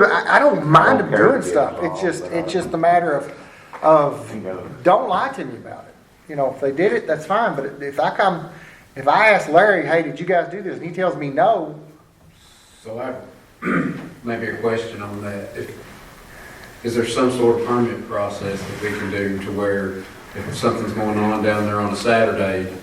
But I, I don't mind them care doing to get stuff, it's involved, just, but I it's just a matter of, of, know. don't lie to me about it. You know, if they did it, that's fine, but if I come, if I ask Larry, hey, did you guys do this, and he tells me no, So I, maybe a question on that. If- Is there some sort of permit process that we can do to where if something's going on down there on a Saturday?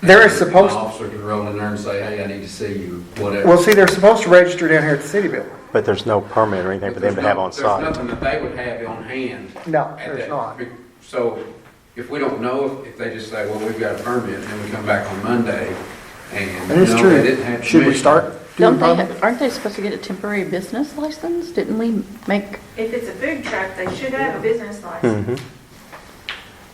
there is An supposed, officer can roll in there and say, hey, I need to see you, well, whatever. see, they're supposed to register down here at the city building. But there's no permit or anything for them to have on There's no- site. There's nothing that they would have on hand. No, at there's that- not. So if we don't know, if- if they just say, well, we've got a permit, and then we come back on Monday and. That is no, they didn't true. have Should we permission. start doing Don't problems? they, aren't they supposed to get a temporary business license? Didn't we make, If it's a food truck, they should have a business license.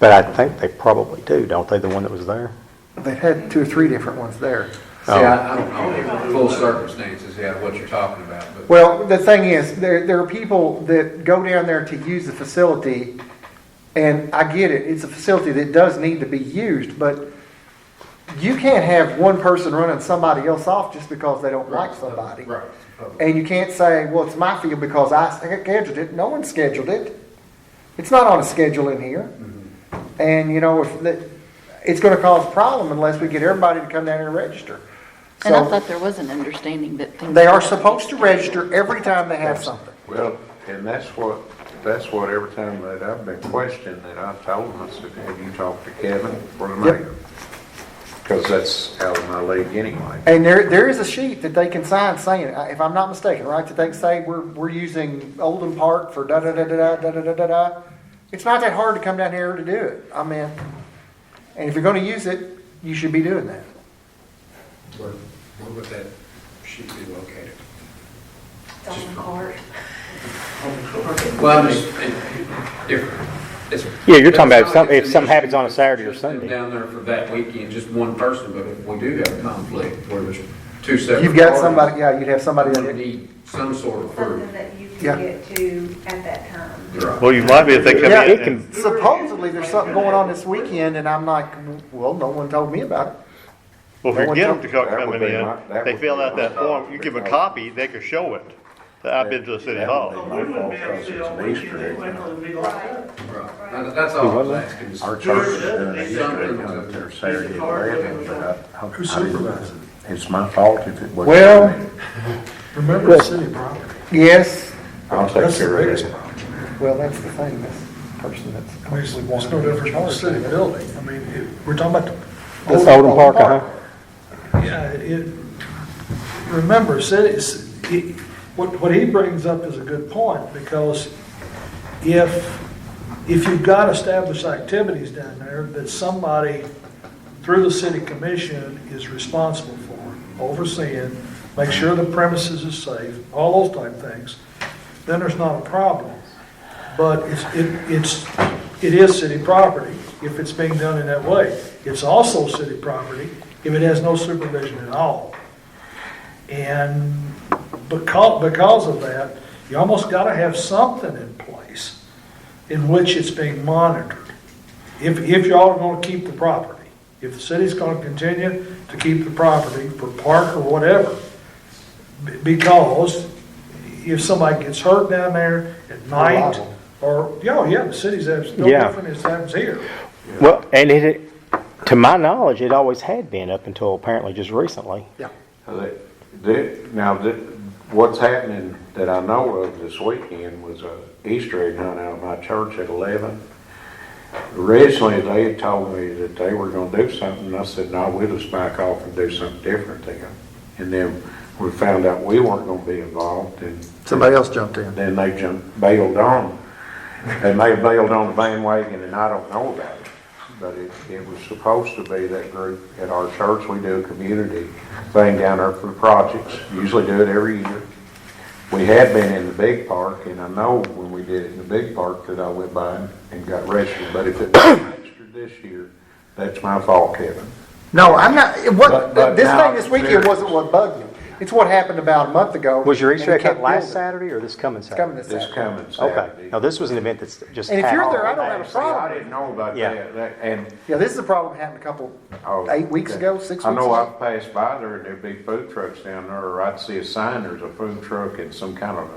But I think they probably do, don't they, the one that was there? They've had two or three different ones there. See, Oh. I I don't know, the full circumstances, yeah, what you're talking about, but. Well, the thing is, there, there are people that go down there to use the facility, and I get it, it's a facility that does need to be used, but you can't have one person running somebody else off just because they don't like somebody. Right. And you can't say, well, it's my field because I scheduled it, no one scheduled it. It's not on a schedule in here. Mm-hmm. And, you know, if, the- it's gonna cause a problem unless we get everybody to come down and register. and I So- thought there was an understanding that things. they are supposed to register every time they have something. Well, and that's what, that's what every time that I've been questioned, that I've told them, I said, have you talked to Kevin or the Yep. mayor? Because that's out of my league anyway. And there, there is a sheet that they can sign saying, uh, if I'm not mistaken, right, that they can say, we're, we're using Oldham Park for da-da-da-da-da, da-da-da-da-da. It's not that hard to come down here to do it, I mean, and if you're gonna use it, you should be doing that. Where, where would that sheet be located? It's on the cart. Well, I'm just, if, if- it's. Yeah, you're talking about if it's not some- if the something happens on a condition, Saturday or just them Sunday. Down there for that weekend, just one person, but if we do have a conflict where there's two separate. You've got parties, somebody, yeah, you'd have somebody We that, need some sort of Something proof. that you Yeah. can get to at that time. Right. Well, you might be if they come Yeah, it in can- and supposedly there's something going on this weekend, and I'm like, well, no one told me about it. Well, That would forget them be- to come that would coming be my- that in, they would fill be out my that thought, form, you give a because- copy, they can show it. that I've been to the city That hall. would be my fault, 'cause it's an Easter egg hunt. Right. Now, That's all I was asking. is- Our church is doing an Easter egg hunt up there Saturday at eleven, but I- I. Who supervises it? It's my fault if it wasn't. Well- me. Remember the city property. Yes, I'll take That's the care of biggest it. problem. well, that's the thing, this person that's I mean, it's actually it's wanting no to be different in from the charge. city of it. building. I mean, it- we're talking about. the That's Oldham Park, uh-huh. Yeah, it, remember, cities, he- what, what he brings up is a good point, because if, if you've got established activities down there that somebody through the city commission is responsible for, overseeing, make sure the premises is safe, all those type things, then there's not a problem. But it's, it, it's, it is city property if it's being done in that way. It's also city property if it has no supervision at all. And because, because of that, you almost gotta have something in place in which it's being monitored. If, if y'all are gonna keep the property, if the city's gonna continue to keep the property for park or whatever, be- because if somebody gets hurt down there at night, liable. or, yeah, oh, yeah, the city's, abs- no Yeah. different as happens here. Well, and it, to my knowledge, it always had been up until apparently just recently. They- they- Now, th- what's happening that I know of this weekend was a Easter egg hunt out of my church at eleven. Originally, they had told me that they were gonna do something, and I said, no, we'll just back off and do something different then. And then we found out we weren't gonna be involved, and Somebody else jumped in. then they jumped, bailed on. They may have bailed on the bandwagon, and I don't know about it, but it, it was supposed to be that group at our church. We do a community thing down there for projects, usually do it every year. We had been in the big park, and I know when we did it in the big park that I went by and got registered, but if it was registered this year, that's my fault, Kevin. No, I'm not, it But- what, but this now- thing this weekend wasn't what bugged me. It's what happened about a month ago. Was your Easter and egg it hunt kept last building. Saturday or this coming It's coming Saturday? this This Saturday. coming Okay, Saturday. now this was an event that's just And if you're there, I happened. don't have a See, I problem. didn't know about Yeah. that, That- and Yeah, this is a problem that happened a couple, Oh, eight weeks okay. ago, six weeks I know I ago. passed by there and there'd be food trucks down there, or I'd see a sign, there's a food truck and some kind of a